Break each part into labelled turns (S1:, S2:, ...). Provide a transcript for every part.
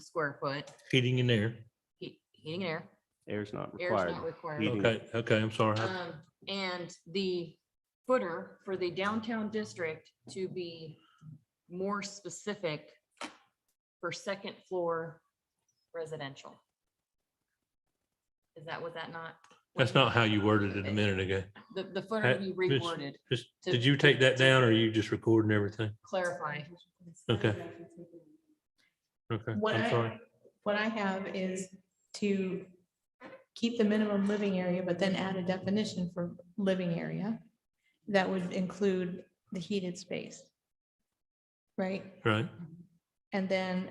S1: square foot,
S2: heating in there.
S1: heat- heating and air,
S3: Air's not
S1: air's
S3: required.
S1: not required.
S3: Heating.
S2: Okay, okay, I'm sorry. I-
S1: Um, and the footer for the downtown district to be more specific for second floor residential. Is that what that not?
S2: That's not how you worded it a minute ago.
S1: The, the footer you
S2: Miss-
S1: reworded,
S2: Just,
S1: To-
S2: did you take that down or are you just recording everything?
S1: clarify.
S2: Okay. Okay,
S4: What
S2: I'm sorry.
S4: I, what I have is to keep the minimum living area, but then add a definition for living area. That would include the heated space. Right?
S2: Right,
S4: And then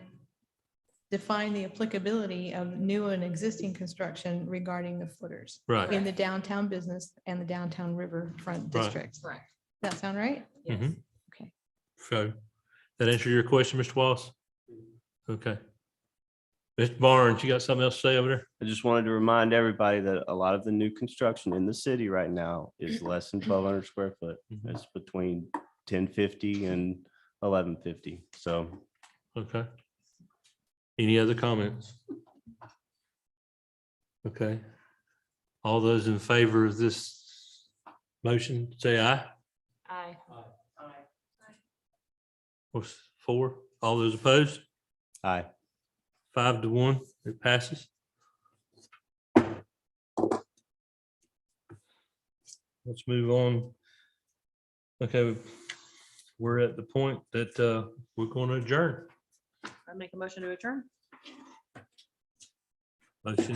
S4: define the applicability of new and existing construction regarding the footers
S2: right.
S4: in the downtown business and the downtown riverfront
S2: Right.
S4: districts.
S1: Correct.
S4: That sound right?
S1: Yes.
S2: Mhm.
S4: Okay.
S2: So that answer your question, Mr. Wallace? Okay. Mr. Barnes, you got something else to say over there?
S3: I just wanted to remind everybody that a lot of the new construction in the city right now is less than twelve hundred square foot.
S2: Mhm.
S3: It's between ten fifty and eleven fifty. So
S2: Okay. Any other comments? Okay. All those in favor of this motion, say aye.
S1: Aye.
S2: What's four? All those opposed?
S3: I
S2: Five to one, it passes. Let's move on. Okay, we're at the point that uh, we're going to adjourn.
S1: I make a motion to adjourn.
S2: Motion